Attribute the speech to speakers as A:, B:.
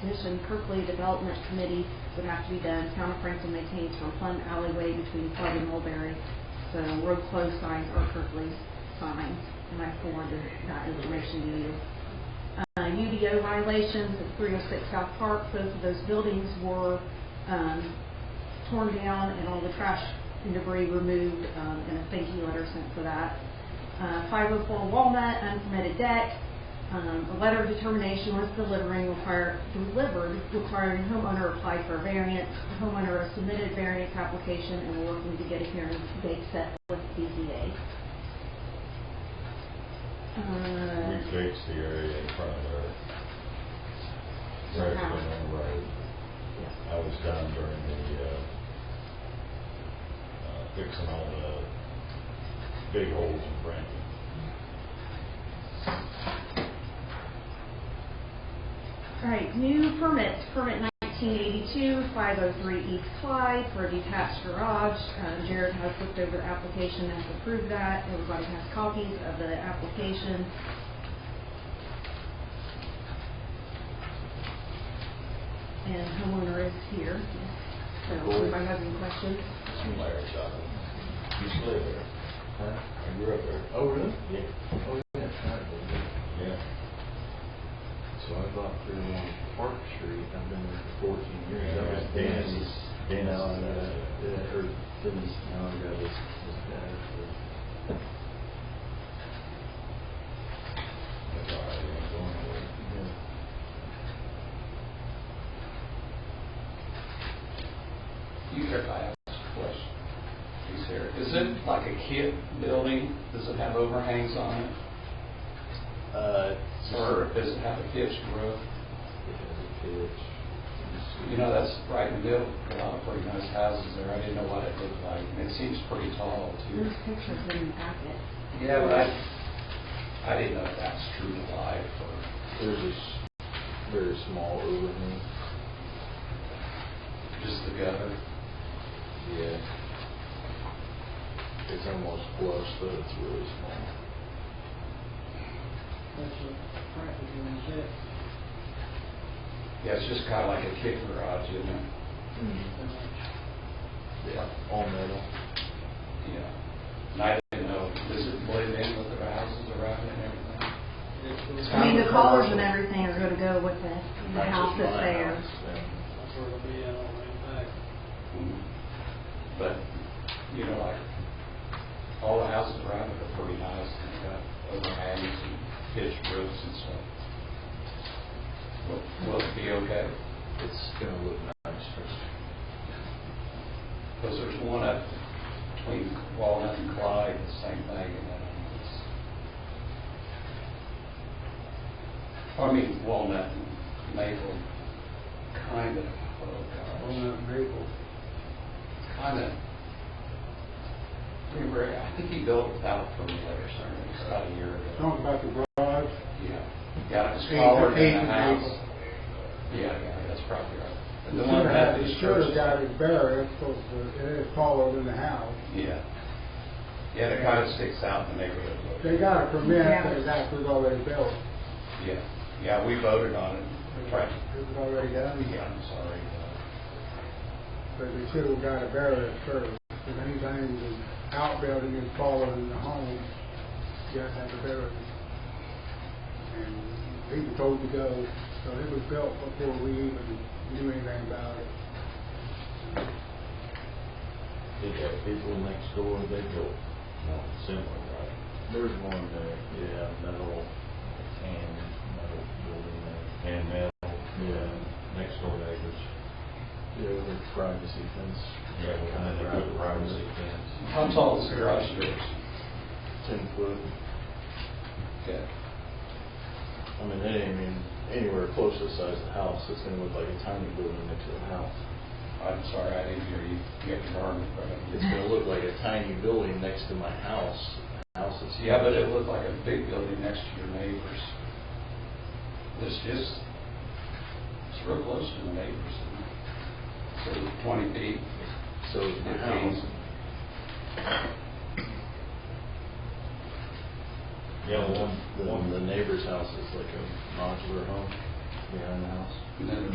A: Commission, Kirkley Development Committee would have to be done. Town of Franklin maintains from Plum Alleyway between Plum and Mulberry. So road closed signs or Kirkley signs. And I forwarded that information to you. Uh, UDO violations at 306 South Park, both of those buildings were um, torn down and all the trash and debris removed, um, and a thank you letter sent for that. Uh, 504 Walnut, unpermitted deck, um, a letter of determination was delivering, require, delivered, requiring homeowner apply for a variance. The Homeowner has submitted variance application and we're looking to get a hearing date set with BZA.
B: We
A: Uh,
B: fixed the area in front of our
A: Somehow.
B: resident road. I was down during the, uh, uh, fixing all the big holes in Brandon.
A: All right, new permits, permit 1982, 503 East Clyde for a detached garage. Uh, Jared has looked over the application and has approved that. Everybody has copies of the application. And homeowner is here, so if anybody has any questions.
B: Some layers out of it. Used to live there. I grew up there.
C: Oh, really?
B: Yeah.
C: Oh, yeah, it's not good.
B: Yeah.
C: So I bought three oh one Park Street, I've been there for fourteen years. I was
B: Yeah, Dennis is-
C: Dan
B: Dennis
C: Allen,
B: is-
C: uh, yeah, or Dennis Allen, that was, was bad for,
B: That's all right, it ain't going nowhere.
C: yeah.
D: You heard I asked a question. He's here. Is it like a kid building? Does it have overhangs on it?
C: Uh,
D: Or does it have a pitched roof? You know, that's right in the middle of a lot of pretty nice houses there. I didn't know what it looked like. And it seems pretty tall too.
A: There's pictures in the packet.
D: Yeah, but I, I didn't know if that's true to life or
C: There's a s- very small overhang.
D: just the gutter.
C: Yeah. It's almost flush, but it's really small.
D: Yeah, it's just kind of like a kid garage, isn't it?
C: Yeah, all metal.
D: Yeah. And I didn't know, does it blend in with the houses around it and everything?
A: I mean, the colors and everything are gonna go with the the house that's there.
E: That's where it'll be uh, at on the way back.
D: But, you know, like, all the houses around it are pretty nice, and they've got overhangs and pitched roofs and stuff. Will- Will it be okay?
C: It's gonna look nice first.
D: Because there's one up between Walnut and Clyde, the same thing, and then it's... I mean, Walnut and Maple, kind of, oh gosh.
E: Walnut and Maple.
D: kind of, we were, I think he built without a permit or something, it's about a year ago.
E: Talking about the garage,
D: Yeah, yeah, it was
E: Oh. Eight-
D: taller
E: eight
D: than the
E: and
D: house.
E: eight.
D: Yeah, yeah, that's probably right. And
E: you
D: the one
E: should
D: that
E: have,
D: is
E: you should
D: first.
E: have got it buried, because it is taller than the house.
D: Yeah. Yeah, it kind of sticks out in the neighborhood. a little
E: They
D: bit.
E: got a permit,
A: Yeah.
E: but it's actually already built.
D: Yeah, yeah, we voted on it, right,
E: It was already done,
D: yeah, I'm sorry.
E: but they should have got it buried at first. If anything, the outbuilding is taller than the home, you have to have to bury it. And he was told to go, so it was built before we even knew anything about it.
B: They got people next door, they built, no, similar, right?
C: There's one there.
B: Yeah, metal, and metal building there. And metal, yeah, next door neighbors.
C: Yeah, with privacy fence.
B: Yeah, we kind of put privacy fence.
D: How tall is the garage doors?
C: Ten foot.
D: Yeah.
C: I mean, that ain't even anywhere close to the size of the house. It's gonna look like a tiny building next to the house.
D: I'm sorry, I didn't hear you, you have your arm in front of you.
C: It's gonna look like a tiny building next to my house. The House is.
D: Yeah, but it looked like a big building next to your neighbors. It's just, it's real close to the neighbors. isn't it? So twenty feet,
C: So is my house.
B: Yeah,
C: The
B: one,
C: one,
B: one,
C: the neighbor's house is like a modular home behind the house.
D: and then the